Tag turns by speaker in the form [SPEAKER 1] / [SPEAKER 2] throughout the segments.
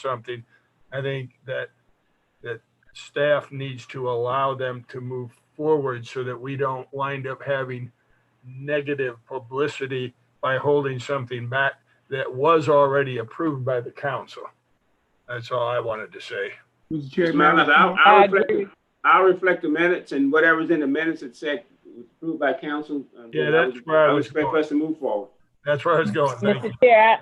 [SPEAKER 1] something, I think that, that staff needs to allow them to move forward so that we don't wind up having negative publicity by holding something back that was already approved by the council. That's all I wanted to say.
[SPEAKER 2] Mr.
[SPEAKER 3] Mr.
[SPEAKER 2] Chairman,
[SPEAKER 3] Magnus, I'll,
[SPEAKER 2] I
[SPEAKER 3] I'll
[SPEAKER 2] agree.
[SPEAKER 3] reflect, the- I'll reflect the minutes and whatever's in the minutes it said was approved by council. uh,
[SPEAKER 1] Yeah,
[SPEAKER 3] I
[SPEAKER 1] that's
[SPEAKER 3] would-
[SPEAKER 1] where I
[SPEAKER 3] I would
[SPEAKER 1] was
[SPEAKER 3] expect
[SPEAKER 1] going.
[SPEAKER 3] us to move forward.
[SPEAKER 1] That's where I was going. Thank you.
[SPEAKER 4] Mr. Chair,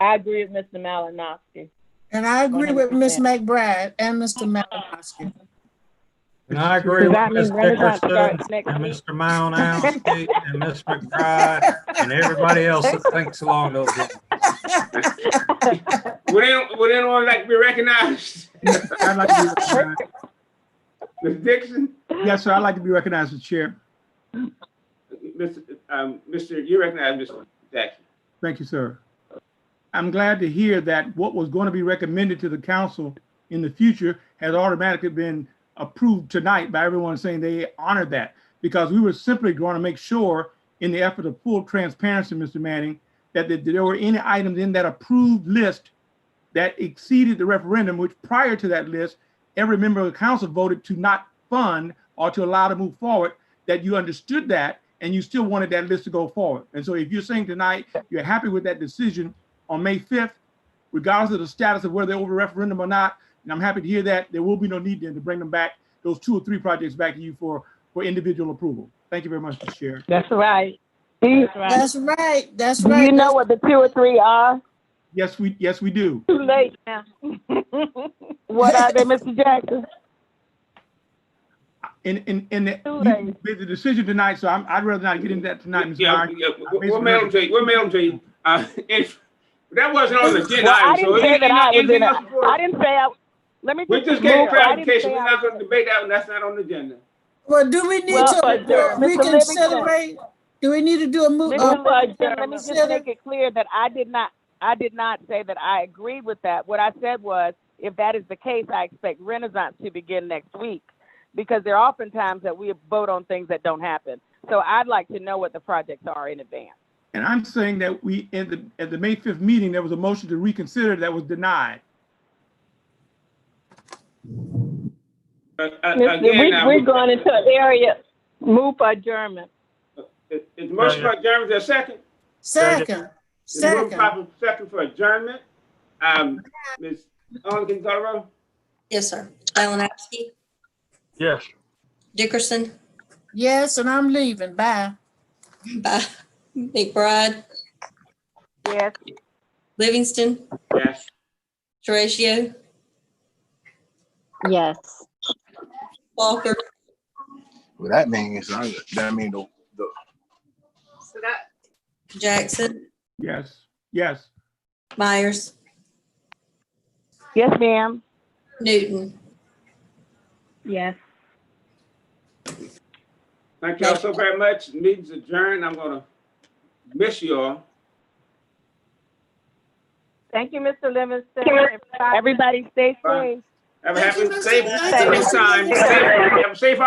[SPEAKER 4] I, I agree with Mr. Malinowski.
[SPEAKER 5] And I agree with Ms. McBride and Mr. Malinowski.
[SPEAKER 6] And I agree
[SPEAKER 4] Does
[SPEAKER 6] with
[SPEAKER 4] that
[SPEAKER 6] Ms.
[SPEAKER 4] mean Renaissance
[SPEAKER 6] Dickerson
[SPEAKER 4] starts next
[SPEAKER 6] and
[SPEAKER 4] week?
[SPEAKER 6] Mr. Malinowski and Ms. McBride and everybody else that thinks along those lines.
[SPEAKER 3] Would anyone, would anyone like to be recognized?
[SPEAKER 2] I'd like to be recognized.
[SPEAKER 3] Ms. Dixon,
[SPEAKER 2] Yes, sir, I'd like to be recognized as chair.
[SPEAKER 3] Mr., um, Mr., you recognize Mr. Jackson.
[SPEAKER 2] Thank you, sir. I'm glad to hear that what was going to be recommended to the council in the future has automatically been approved tonight by everyone saying they honored that. Because we were simply going to make sure, in the effort of full transparency, Mr. Manning, that th- there were any items in that approved list that exceeded the referendum, which prior to that list, every member of the council voted to not fund or to allow to move forward, that you understood that and you still wanted that list to go forward. And so if you're saying tonight you're happy with that decision on May 5th, regardless of the status of whether they over referendum or not, and I'm happy to hear that, there will be no need then to bring them back, those two or three projects back to you for, for individual approval. Thank you very much, Mr. Chair.
[SPEAKER 4] That's right. That's right.
[SPEAKER 5] That's right, that's
[SPEAKER 4] Do
[SPEAKER 5] right.
[SPEAKER 4] you know what the two or three are?
[SPEAKER 2] Yes, we, yes, we do.
[SPEAKER 4] Too late now. What are they, Mr. Jackson?
[SPEAKER 2] And, and, and that
[SPEAKER 4] Too
[SPEAKER 2] you
[SPEAKER 4] late.
[SPEAKER 2] made the decision tonight, so I'm, I'd rather not get into that tonight, Mr.
[SPEAKER 3] Yeah,
[SPEAKER 2] Iron.
[SPEAKER 3] yeah, we- We'll mail them to you, we'll mail them to you. Uh, if, that wasn't on the agenda,
[SPEAKER 4] Well, I
[SPEAKER 3] item, so
[SPEAKER 4] didn't say
[SPEAKER 3] anything
[SPEAKER 4] that I was
[SPEAKER 3] anything
[SPEAKER 4] in
[SPEAKER 3] else
[SPEAKER 4] a,
[SPEAKER 3] before-
[SPEAKER 4] I didn't say I, let me
[SPEAKER 3] We
[SPEAKER 4] just.
[SPEAKER 3] just
[SPEAKER 4] move
[SPEAKER 3] gave
[SPEAKER 4] forward. I didn't
[SPEAKER 3] clarification,
[SPEAKER 4] say
[SPEAKER 3] we're
[SPEAKER 4] I
[SPEAKER 3] not
[SPEAKER 4] was-
[SPEAKER 3] gonna debate that, one. that's not on the agenda.
[SPEAKER 5] Well, do we need
[SPEAKER 4] Well, uh,
[SPEAKER 5] to
[SPEAKER 4] Mr. Livingston.
[SPEAKER 5] reconsider? Do we need to do a uh, move?
[SPEAKER 4] Mr. Livingston, Uh, Let me just
[SPEAKER 5] consider-
[SPEAKER 4] make it clear that I did not, I did not say that I agree with that. What I said was, if that is the case, I expect Renaissance to begin next week. Because there are often times that we vote on things that don't happen. So I'd like to know what the projects are in advance.
[SPEAKER 2] And I'm saying that we, in the, at the May 5th meeting, there was a motion to reconsider that was denied.
[SPEAKER 3] Uh, uh,
[SPEAKER 4] Mister,
[SPEAKER 3] again,
[SPEAKER 4] we,
[SPEAKER 3] now,
[SPEAKER 4] we're going into an area, move for adjournment.
[SPEAKER 3] Is is the motion by Jeremy, is there a second?
[SPEAKER 5] Second,
[SPEAKER 3] It's moved
[SPEAKER 5] second.
[SPEAKER 3] proper second for adjournment. Um, Ms. Ellen Gonzalez,
[SPEAKER 7] Yes, sir. Malinowski,
[SPEAKER 1] Yes.
[SPEAKER 7] Dickerson,
[SPEAKER 5] Yes, and I'm leaving, bye.
[SPEAKER 7] Ba- McBride,
[SPEAKER 4] Yes.
[SPEAKER 7] Livingston,
[SPEAKER 3] yes.
[SPEAKER 7] Teratio,
[SPEAKER 8] Yes.
[SPEAKER 7] Walker,
[SPEAKER 9] Well, that means, that mean the, the,
[SPEAKER 7] Jackson,
[SPEAKER 2] Yes, yes.
[SPEAKER 7] Myers,
[SPEAKER 4] Yes, ma'am.
[SPEAKER 7] Newton.
[SPEAKER 8] Yes.
[SPEAKER 3] Thank y'all so very much. Meeting's adjourned. I'm gonna miss you all.
[SPEAKER 4] Thank you, Mr. Livingston. Everybody stay
[SPEAKER 3] Bye.
[SPEAKER 4] safe.
[SPEAKER 3] Have a
[SPEAKER 5] Thank
[SPEAKER 3] happy,
[SPEAKER 5] you, Mr.
[SPEAKER 3] safe,
[SPEAKER 5] Thank
[SPEAKER 4] you.
[SPEAKER 3] safe time, safe, have a safe